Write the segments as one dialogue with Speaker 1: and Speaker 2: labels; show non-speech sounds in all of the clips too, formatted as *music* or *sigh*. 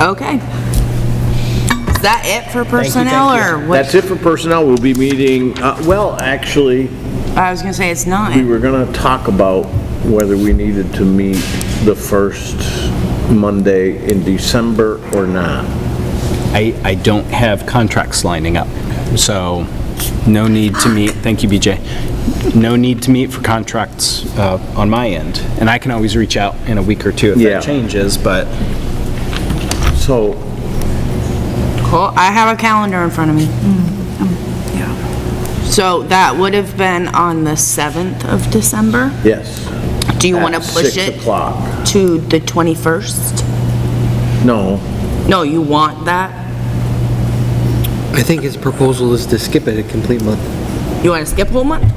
Speaker 1: Okay. Is that it for personnel or what?
Speaker 2: That's it for personnel. We'll be meeting, uh, well, actually,
Speaker 1: I was gonna say it's not.
Speaker 2: we were going to talk about whether we needed to meet the first Monday in December or not.
Speaker 3: I, I don't have contracts lining up, so no need to meet, thank you, BJ. No need to meet for contracts uh, on my end. And I can always reach out in a week or two if
Speaker 2: Yeah.
Speaker 3: that changes, but
Speaker 2: So
Speaker 1: Cool. I have a calendar in front of me.
Speaker 2: Mm-hmm.
Speaker 1: So that would have been on the 7th of December.
Speaker 2: Yes.
Speaker 1: Do you want to
Speaker 2: At
Speaker 1: push
Speaker 2: Six
Speaker 1: it
Speaker 2: o'clock.
Speaker 1: to the 21st?
Speaker 2: No,
Speaker 1: No, you want that?
Speaker 4: I think his proposal is to skip it a complete month.
Speaker 1: You want to skip a whole month?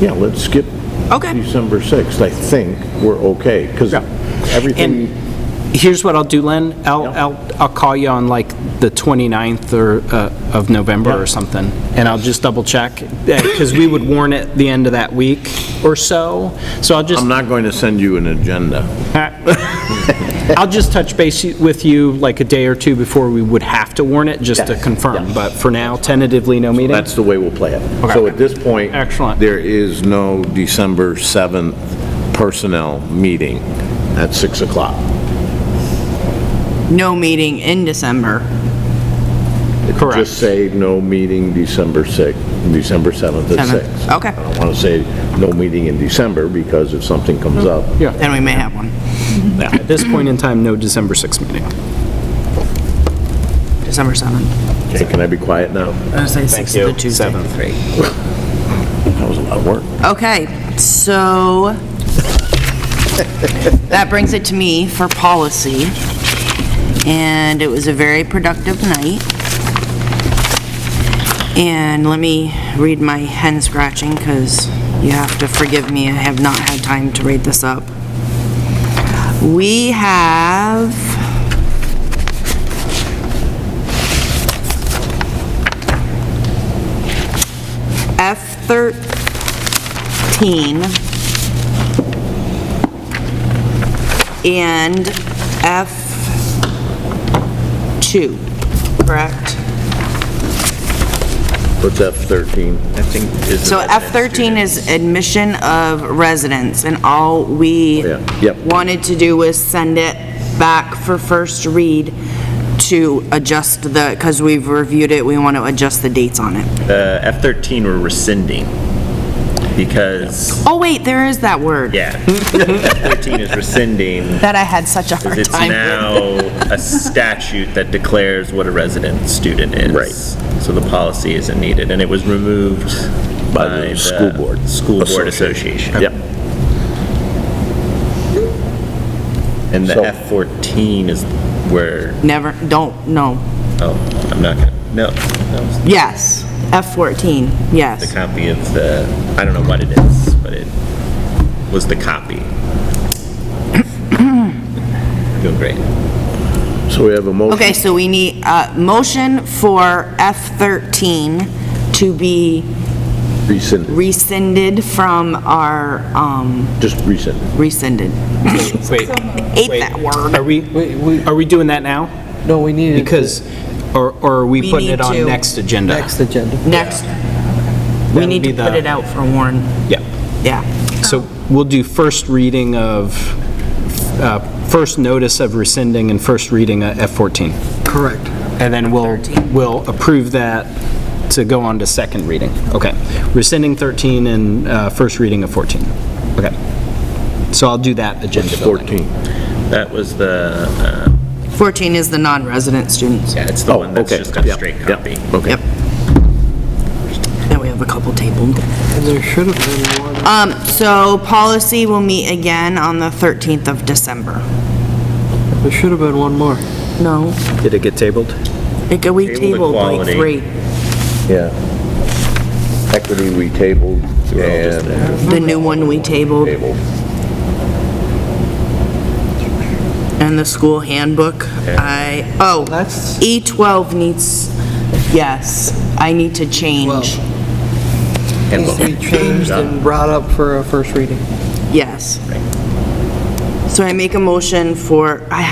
Speaker 2: yeah, let's skip
Speaker 1: Okay.
Speaker 2: December 6th. I think we're okay, because everything,
Speaker 3: And here's what I'll do, Len. I'll,
Speaker 2: Yeah.
Speaker 3: I'll, I'll call you on like the 29th or, uh, of November
Speaker 2: Yeah.
Speaker 3: or something, and I'll just double check, because we would warn it the end of that week or so, so I'll just,
Speaker 2: I'm not going to send you an agenda.
Speaker 3: I'll just touch base with you like a day or two before we would have to warn it, just to
Speaker 2: Yes,
Speaker 3: confirm, but for now, tentatively, no meeting.
Speaker 2: That's the way we'll play it.
Speaker 3: Okay.
Speaker 2: So at this point.
Speaker 3: Excellent.
Speaker 2: There is no December 7th personnel meeting at 6 o'clock.
Speaker 1: No meeting in December.
Speaker 3: Correct.
Speaker 2: Just say no meeting December 6th, December 7th at
Speaker 1: Seventh.
Speaker 2: 6.
Speaker 1: Okay.
Speaker 2: I don't want to say no meeting in December because if something comes up.
Speaker 3: Yeah.
Speaker 1: Then we may have one.
Speaker 3: At this point in time, no December 6th meeting.
Speaker 1: December 7th.
Speaker 2: Hey, can I be quiet
Speaker 1: I
Speaker 2: now?
Speaker 1: was gonna say 6th to
Speaker 3: you.
Speaker 1: Tuesday.
Speaker 3: Seventh.
Speaker 1: Three.
Speaker 2: That was a lot of work.
Speaker 1: Okay, so that brings it to me for policy. And it was a very productive night. And let me read my hen scratching because you have to forgive me, I have not had time to read this up. We have F13 and F2, correct?
Speaker 2: What's F-13? I think. is
Speaker 1: So
Speaker 2: it-
Speaker 1: F13 is admission of residents, and all we
Speaker 2: Oh, Yeah, yep.
Speaker 1: wanted to do was send it back for first read to adjust the, because we've reviewed it, we want to adjust the dates on it.
Speaker 5: The F-13 we're rescinding because,
Speaker 1: Oh, wait, there is that word.
Speaker 5: yeah, F-13 is rescinding
Speaker 1: That I had such a hard time with.
Speaker 5: because it's now a statute that declares what a resident student is.
Speaker 2: Right.
Speaker 5: So the policy isn't needed, and it was removed
Speaker 2: By
Speaker 5: by
Speaker 2: the
Speaker 5: the...
Speaker 2: school board
Speaker 5: School Board
Speaker 2: association.
Speaker 5: Association.
Speaker 2: Yep.
Speaker 5: And the
Speaker 2: So-
Speaker 5: F-14 is where,
Speaker 1: Never, don't, no.
Speaker 5: oh, I'm not gonna, no, that was
Speaker 1: Yes, F14,
Speaker 5: the
Speaker 1: yes.
Speaker 5: copy of the, I don't know what it is, but it was the copy. *coughs* Doing great.
Speaker 2: So we have a motion.
Speaker 1: Okay, so we need a motion for F13 to be
Speaker 2: Rescind,
Speaker 1: rescinded from our, um,
Speaker 2: just rescind.
Speaker 1: rescinded.
Speaker 3: Wait,
Speaker 1: Hate that word.
Speaker 3: are we, are we doing that now?
Speaker 4: No, we need it
Speaker 3: Because, or or are we
Speaker 1: We
Speaker 3: putting
Speaker 1: need
Speaker 3: it on
Speaker 1: to-
Speaker 3: next agenda?
Speaker 4: next agenda.
Speaker 1: Next, we
Speaker 3: That'll
Speaker 1: need to
Speaker 3: be the-
Speaker 1: put it out for Warren.
Speaker 3: Yeah.
Speaker 1: Yeah.
Speaker 3: So we'll do first reading of, uh, first notice of rescinding and first reading of F-14.
Speaker 4: Correct.
Speaker 3: And then we'll, we'll approve that to go on to second reading. Okay. Rescinding 13 and uh, first reading of 14. Okay. So I'll do that agenda building.
Speaker 2: 14.
Speaker 5: That was the, uh,
Speaker 1: 14 is the non-resident students.
Speaker 5: yeah, it's the one that's
Speaker 2: Oh, okay,
Speaker 5: just got a
Speaker 2: yeah,
Speaker 5: straight
Speaker 2: yeah.
Speaker 5: copy.
Speaker 2: Okay.
Speaker 1: Yep. Now we have a couple tabled.
Speaker 4: And there should have been one.
Speaker 1: Um, so policy will meet again on the 13th of December.
Speaker 4: There should have been one more.
Speaker 1: No,
Speaker 3: Did it get tabled?
Speaker 1: it could, we
Speaker 5: Table
Speaker 1: tabled like
Speaker 5: equality.
Speaker 1: three.
Speaker 2: Yeah. Equity we tabled and
Speaker 1: The new one we tabled
Speaker 2: tabled.
Speaker 1: and the school handbook. I, oh,
Speaker 4: That's-
Speaker 1: E12 needs, yes, I need to change.
Speaker 4: Needs to be changed and brought up for a first reading.
Speaker 1: Yes. So I make a motion for, I